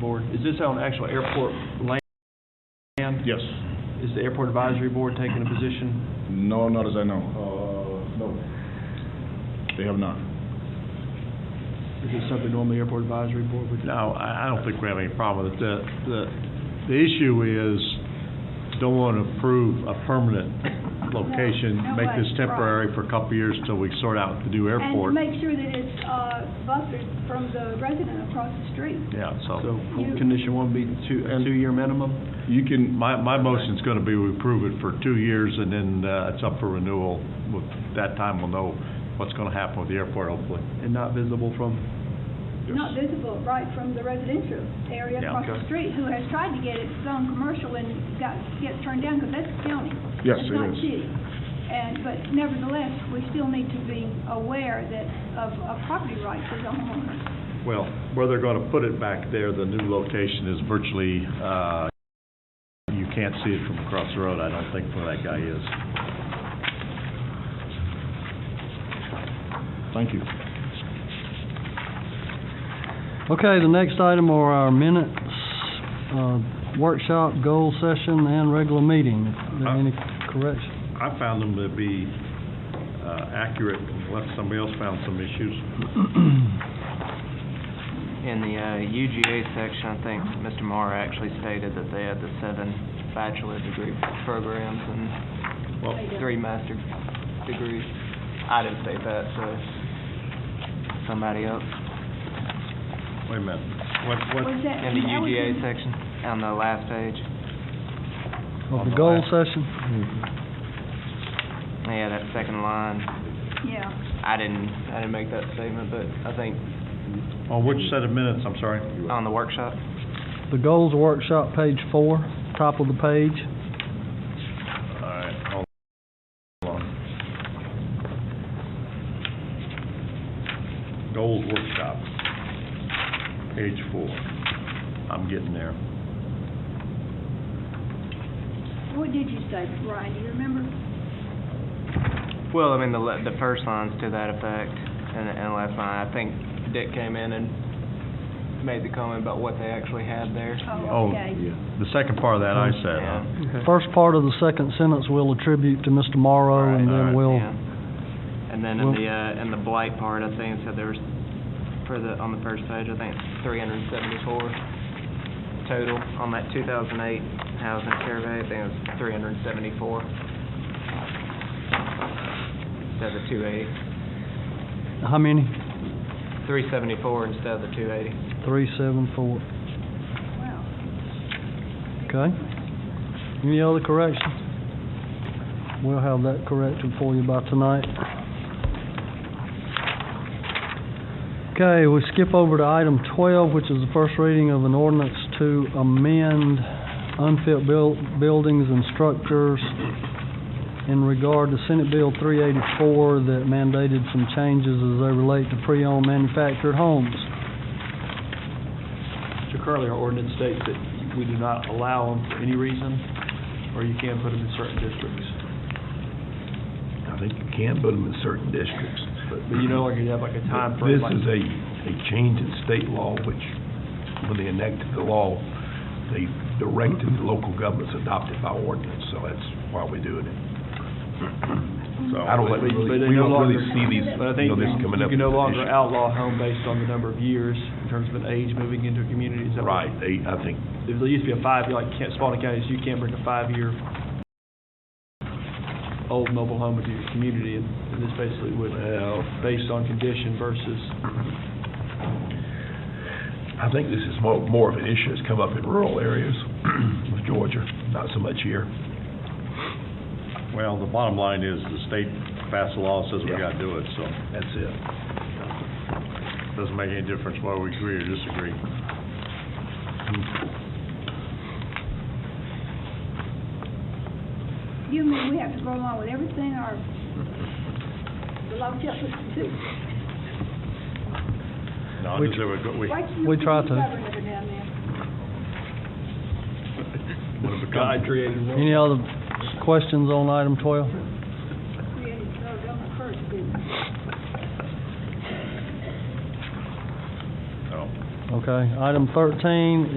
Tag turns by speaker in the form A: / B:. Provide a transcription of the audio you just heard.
A: Board, is this on actual airport land?
B: Yes.
A: Is the Airport Advisory Board taking a position?
B: No, not as I know. Uh, no. They have not.
A: Is it something normally Airport Advisory Board would do?
C: No, I, I don't think we have any problem with that. The, the issue is, don't want to approve a permanent location,
D: No,
C: make this
D: right,
C: temporary for a couple of years till we sort out the new
D: And to
C: airport.
D: make sure that it's uh, buffered from the resident across the street.
C: Yeah,
A: So
C: so,
A: condition one be two, a two-year minimum?
B: You can,
C: my, my motion's going to be we approve it for two years, and then, uh, it's up for renewal. With that time, we'll know what's going to happen with the airport, hopefully.
A: And not visible from,
D: Not visible right from the residential area
C: Yeah,
D: across
C: okay.
D: the street, who has tried to get its own commercial and got, gets turned down because that's county.
B: Yes,
D: It's
B: it
D: not
B: is.
D: city. And, but nevertheless, we still need to be aware that of, of property rights as a homeowner.
C: Well, where they're going to put it back there, the new location is virtually, uh, you can't see it from across the road, I don't think, where that guy is.
B: thank you.
E: Okay, the next item are our minutes, uh, workshop, goal session, and regular meeting. Are there any corrections?
C: I found them to be uh, accurate unless somebody else found some issues.
F: In the uh, UGA section, I think Mr. Mara actually stated that they had the seven bachelor degree programs and
C: Well,
F: three master degrees. I didn't state that, so somebody else
C: wait a minute. What, what,
D: Was that?
F: in the
D: that was
F: UGA
D: in-
F: section on the last page.
E: Of the goal session?
F: Yeah, that second line.
D: Yeah.
F: I didn't, I didn't make that statement, but I think
C: on oh, which set of minutes, I'm sorry?
F: on the workshop,
E: The goals workshop, page four, top of the page.
C: All right, hold on. Goals workshop, page four. I'm getting there.
D: What did you say, Brian? Do you remember?
F: Well, I mean, the, le- the first line's to that effect, and, and last line, I think Dick came in and made the comment about what they actually had there.
C: Oh,
D: Oh, okay.
C: the second part of that I said, huh?
F: Yeah.
E: First part of the second sentence we'll attribute to Mr. Morrow,
C: Right,
E: and then
C: alright,
E: we'll,
F: Yeah. And then in
E: Well-
F: the, uh, in the blight part, I think it said there was, for the, on the first page, I think three hundred and seventy-four total on that two thousand eight housing survey, I think it was three hundred and seventy-four. Instead of the two eighty,
E: how many?
F: three seventy-four instead of the two eighty.
E: Three, seven, four.
D: Wow.
E: Okay. Any other corrections? We'll have that corrected for you by tonight. Okay, we skip over to item twelve, which is the first reading of an ordinance to amend unfit buil- buildings and structures in regard to Senate Bill three eighty-four that mandated some changes as they relate to pre-owned manufactured homes.
A: so currently our ordinance states that we do not allow them for any reason, or you can put them in certain districts.
G: I think you can put them in certain districts.
A: But you know, like you have like a time
G: This
A: frame. like-
G: is a, a change in state law, which, when they enacted the law, they directed the local governments to adopt it by ordinance, so that's why we're doing it. I don't, like-
A: But- but
G: really-
A: they
G: we
A: no
G: don't really
A: longer-
G: see these,
A: But
G: you
A: I think
G: know, this
A: you
G: coming up.
A: can
G: as
A: no
G: an
A: longer
G: issue.
A: outlaw home based on the number of years in terms of an age moving into a community. Is that what-
G: Right, they, I think,
A: If There used to be a five, like Kent- Spalding County, you can't bring a five-year old mobile home into your community, and and this basically would,
G: well,
A: based on condition versus,
G: I think this is more, more of an issue that's come up in rural areas with Georgia, not so much here.
C: Well, the bottom line is the state passed a law that says we gotta do it, so it
G: That's it.
C: doesn't make any difference whether we agree or disagree.
D: You mean we have to go along with everything our, the law tells us to do?
C: No, I
E: Which-
C: just said we go- we-
D: Why
C: when
D: can't
E: We try
D: be
E: to.
D: stubborn every now and then?
C: it becomes-
A: God created world.
E: Any other questions on item twelve?
D: Created drug on the first, didn't it?
C: no. Oh.
E: Okay, item thirteen